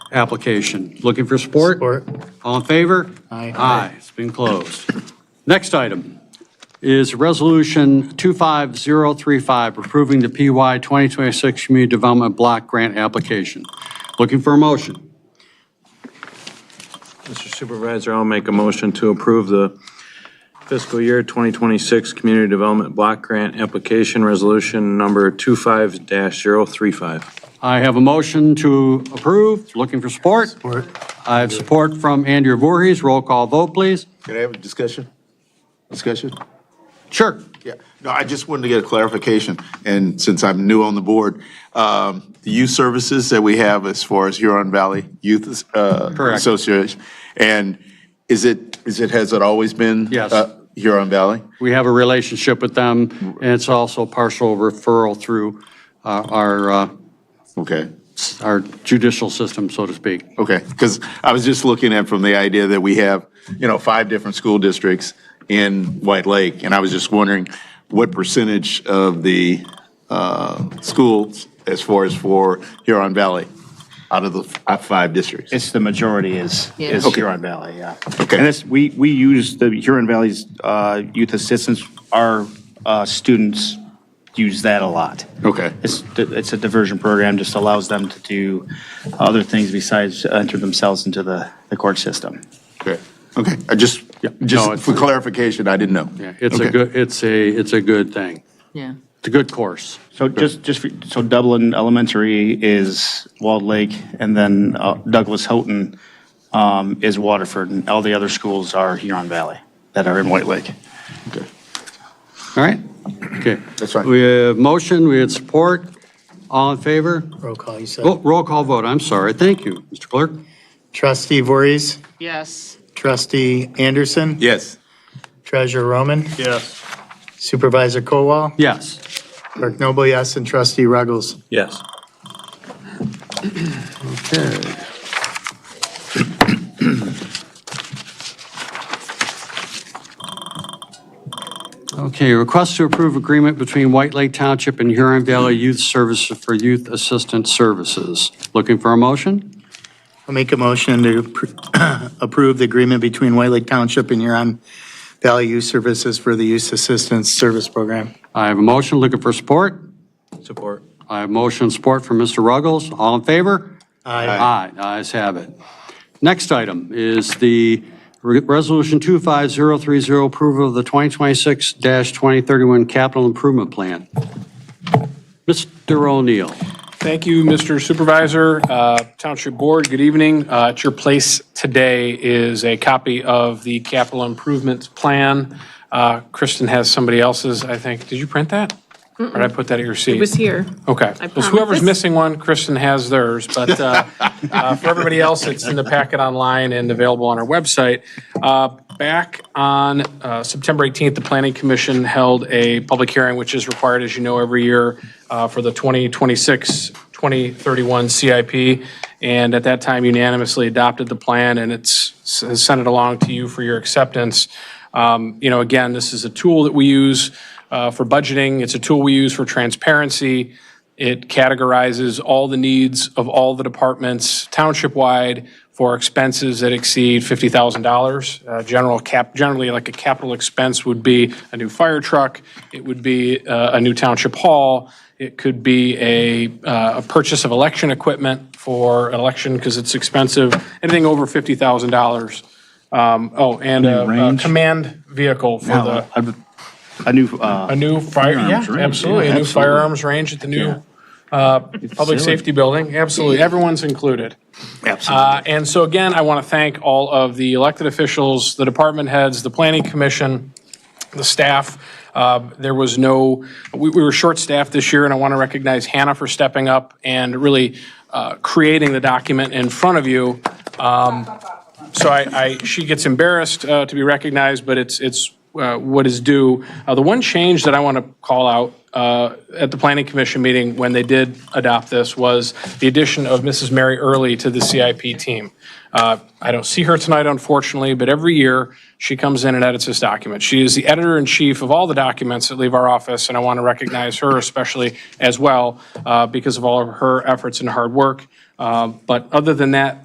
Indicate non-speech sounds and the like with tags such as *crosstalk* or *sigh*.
application. Looking for support? Support. All in favor? Aye. Aye, it's been closed. Next item is Resolution 25035, approving the PY 2026 Community Development Block Grant Application. Looking for a motion? Mr. Supervisor, I'll make a motion to approve the fiscal year 2026 Community Development Block Grant Application Resolution Number 25-035. I have a motion to approve. Looking for support? Support. I have support from Andrea Voorhees. Roll call vote, please. Can I have a discussion? Discussion? Sure. Yeah, no, I just wanted to get a clarification, and since I'm new on the board, um, the youth services that we have as far as Huron Valley Youth uh, Correct. Association, and is it, is it, has it always been? Yes. uh, Huron Valley? We have a relationship with them, and it's also partial referral through uh, our uh, Okay, our judicial system, so to speak. okay, because I was just looking at from the idea that we have, you know, five different school districts in White Lake, and I was just wondering what percentage of the uh, schools as far as for Huron Valley, out of the f- five districts? It's the majority is, is Yeah. Okay. Huron Valley, yeah. Okay. And it's, we, we use the Huron Valley's uh, youth assistance, our uh, students use that a lot. Okay. It's, it's a diversion program, just allows them to do other things besides enter themselves into the, the court system. Okay, Okay. I just, No, just it's- for clarification, I didn't know. Yeah, It's a Okay. good, it's a, it's a good thing. Yeah. It's a good course. So just, just, for- so Dublin Elementary is Walled Lake, and then uh, Douglas Houghton um, is Waterford, and all the other schools are Huron Valley that are in White Lake. Okay. All right? Okay. That's fine. We have motion, we had support. All in favor? Roll call, you said. Oh, Roll call vote, I'm sorry. Thank you, Mr. Clerk. Trustee Voorhees, Yes. trustee Anderson. Yes. Treasurer Roman, Yes. supervisor Colwell, Yes. clerk Noble, yes, and trustee Ruggles. Yes. Okay, request to approve agreement between White Lake Township and Huron Valley Youth Services for Youth Assistance Services. Looking for a motion? I'll make a motion to appro- *clears throat* approve the agreement between White Lake Township and Huron Valley Youth Services for the Youth Assistance Service Program. I have a motion, looking for support. Support. I have motion and support from Mr. Ruggles. All in favor? Aye, the ayes have it. Next item is the Re- Resolution 25030, approval of the 2026-2031 capital improvement plan. Mr. O'Neill. Thank you, Mr. Supervisor. Uh, Township Board, good evening. Uh, At your place today is a copy of the capital improvements plan. Uh, Kristen has somebody else's, I think. Did you print that? Or did I put that at your seat? It was here. Okay. I Well, Whoever's promise. missing one, Kristen has theirs, but uh, uh, for everybody else, it's in the packet online and available on our website. Uh, Back on uh, September 18th, the Planning Commission held a public hearing, which is required, as you know, every year uh, for the 2026-2031 CIP, and at that time unanimously adopted the plan, and it's has sent it along to you for your acceptance. Um, You know, again, this is a tool that we use uh, for budgeting. It's a tool we use for transparency. It categorizes all the needs of all the departments township-wide for expenses that exceed $50,000. Uh, General cap, generally, like a capital expense would be a new fire truck, it would be uh, a new township hall, it could be a, uh, a purchase of election equipment for an election because it's expensive, anything over $50,000. Um, Oh, and a- a range? command vehicle for the, A a new, uh, a new fire, yeah, Firearms range, absolutely, yeah, a new absolutely. firearms range at the new uh, public safety building, absolutely, everyone's included. Uh, And so again, I want to thank all of the elected officials, the department heads, the planning commission, the staff. Uh, There was no, we we were short-staffed this year, and I want to recognize Hannah for stepping up and really uh, creating the document in front of you. Um, So I, I- she gets embarrassed uh, to be recognized, but it's, it's uh, what is due. Uh, The one change that I want to call out uh, at the planning commission meeting when they did adopt this was the addition of Mrs. Mary Early to the CIP team. Uh, I don't see her tonight, unfortunately, but every year she comes in and edits this document. She is the editor in chief of all the documents that leave our office, and I want to recognize her especially as well uh, because of all of her efforts and hard work. Uh, but other than that,